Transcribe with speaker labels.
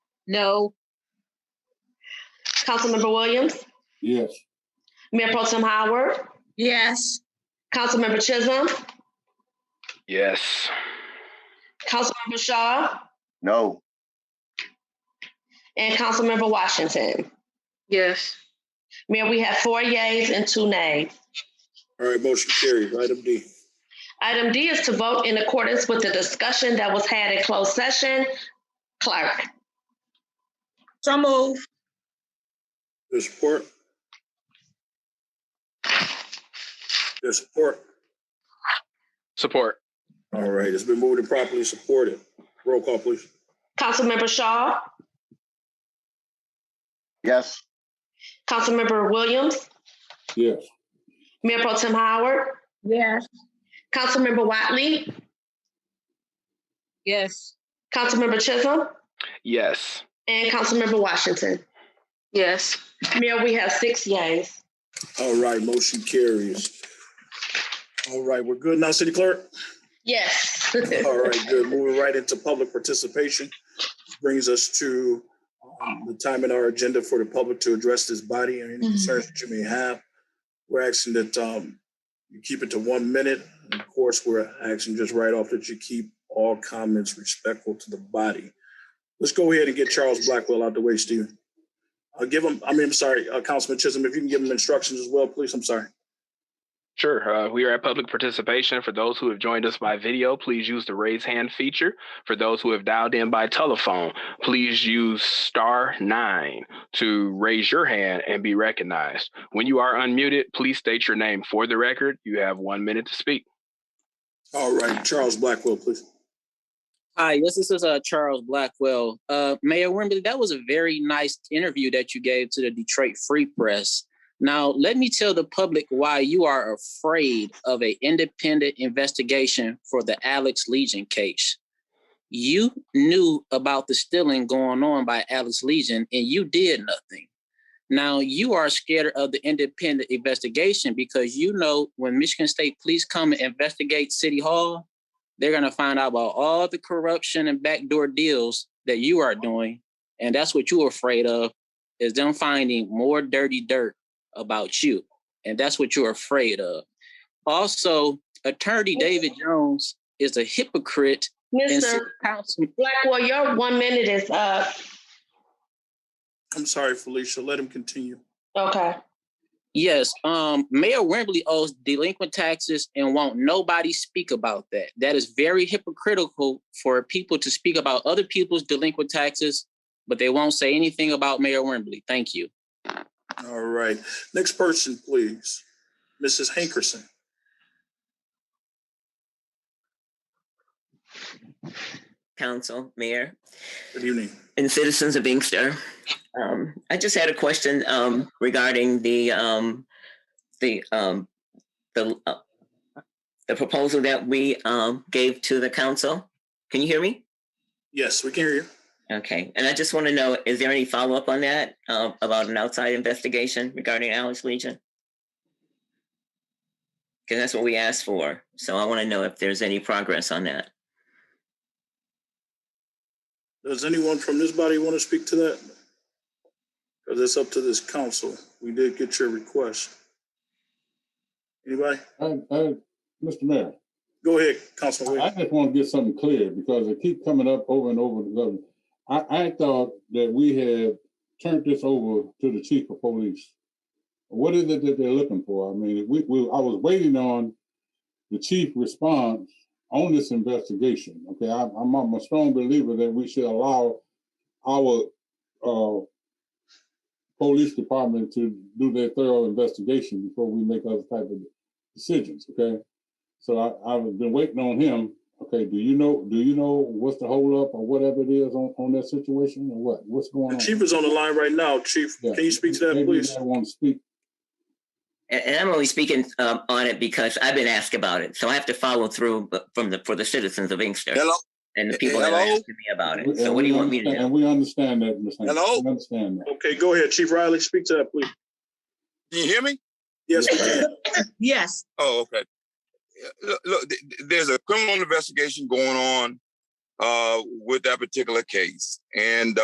Speaker 1: No. Councilmember Williams,
Speaker 2: Yes.
Speaker 1: Mayor Pro Tem Howard,
Speaker 3: Yes.
Speaker 1: Councilmember Chisholm,
Speaker 4: Yes.
Speaker 1: Councilmember Shaw,
Speaker 2: No.
Speaker 1: and Councilmember Washington.
Speaker 3: Yes.
Speaker 1: Mayor, we have four yays and two nays.
Speaker 2: All right, motion carries. Item D.
Speaker 1: Item D is to vote in accordance with the discussion that was had in closed session. Clerk,
Speaker 3: So move.
Speaker 2: There's support. There's support.
Speaker 4: Support.
Speaker 2: All right, it's been moved and properly supported. Roll call, please.
Speaker 1: Councilmember Shaw,
Speaker 2: Yes.
Speaker 1: Councilmember Williams,
Speaker 2: Yes.
Speaker 1: Mayor Pro Tem Howard,
Speaker 3: Yes.
Speaker 1: Councilmember Watley,
Speaker 3: Yes.
Speaker 1: Councilmember Chisholm,
Speaker 4: Yes.
Speaker 1: and Councilmember Washington.
Speaker 3: Yes.
Speaker 1: Mayor, we have six yays.
Speaker 2: All right, motion carries. All right, we're good now, City Clerk?
Speaker 1: Yes.
Speaker 2: All right, good. Moving right into public participation. This Brings us to um, the time in our agenda for the public to address this body and any concerns that you may have. We're asking that um, you keep it to one minute. Of course, we're asking just right off that you keep all comments respectful to the body. Let's go ahead and get Charles Blackwell out the way, Stephen. Uh, Give him, I mean, I'm sorry, uh, Councilman Chisholm, if you can give him instructions as well, please, I'm sorry.
Speaker 4: Sure. Uh, we are at public participation. For those who have joined us by video, please use the raise hand feature. For those who have dialed in by telephone, please use star nine to raise your hand and be recognized. When you are unmuted, please state your name for the record. You have one minute to speak.
Speaker 2: All right, Charles Blackwell, please.
Speaker 5: Hi, yes, this is uh, Charles Blackwell. Uh, Mayor Wimberly, that was a very nice interview that you gave to the Detroit Free Press. Now, let me tell the public why you are afraid of an independent investigation for the Alex Legion case. You knew about the stealing going on by Alex Legion and you did nothing. Now, you are scared of the independent investigation because you know when Michigan State Police come and investigate City Hall, they're going to find out about all the corruption and backdoor deals that you are doing and that's what you're afraid of is them finding more dirty dirt about you and that's what you're afraid of also attorney david jones is a hypocrite and
Speaker 1: Mr.
Speaker 5: city council
Speaker 1: Blackwell, your one minute is up.
Speaker 2: I'm sorry, Felicia, let him continue.
Speaker 1: Okay.
Speaker 5: Yes, um, Mayor Wembley owes delinquent taxes and won't nobody speak about that. That is very hypocritical for people to speak about other people's delinquent taxes, but they won't say anything about Mayor Wembley. Thank you.
Speaker 2: All right. Next person, please. Mrs. Hankerson.
Speaker 6: Council, Mayor,
Speaker 2: Good evening.
Speaker 6: and citizens of Inkster. Um, I just had a question um, regarding the um, the um, the uh, the proposal that we um, gave to the council. Can you hear me?
Speaker 2: Yes, we can hear you.
Speaker 6: Okay, and I just want to know, is there any follow up on that uh, about an outside investigation regarding Alex Legion? Because that's what we asked for. So I want to know if there's any progress on that.
Speaker 2: Does anyone from this body want to speak to that? Because it's up to this council. We did get your request. Anybody?
Speaker 7: I, I, Mr. Mayor,
Speaker 2: Go ahead, Councilman.
Speaker 7: I
Speaker 2: Williams.
Speaker 7: just want to get something clear because it keep coming up over and over. and over. I, I thought that we had turned this over to the chief of police. What is it that they're looking for? I mean, we, we, I was waiting on the chief response on this investigation. Okay, I, I'm, I'm a strong believer that we should allow our, uh, police department to do their thorough investigation before we make other type of decisions, okay? So I, I've been waiting on him. Okay, do you know, do you know what's the holdup or whatever it is on, on that situation or what? What's going
Speaker 2: The
Speaker 7: on?
Speaker 2: chief is on the line right now. Chief,
Speaker 7: Yeah.
Speaker 2: can you speak to that,
Speaker 7: Maybe
Speaker 2: please?
Speaker 7: I want to speak.
Speaker 6: And, and I'm only speaking um, on it because I've been asked about it, so I have to follow through b- from the for the citizens of Inkster
Speaker 8: Hello,
Speaker 6: and the people that are
Speaker 8: Hello?
Speaker 6: asking me about it.
Speaker 7: And
Speaker 6: So what do
Speaker 7: we
Speaker 6: you want me to
Speaker 7: understand-
Speaker 6: do?
Speaker 7: And we understand that, Ms. Hanks.
Speaker 8: Hello?
Speaker 7: We understand that.
Speaker 2: Okay, go ahead. Chief Riley, speak to that, please.
Speaker 8: can you hear me?
Speaker 2: Yes, we can.
Speaker 3: Yes.
Speaker 8: Oh, okay. Yeah, Look, look th- th- there's a criminal investigation going on uh, with that particular case, and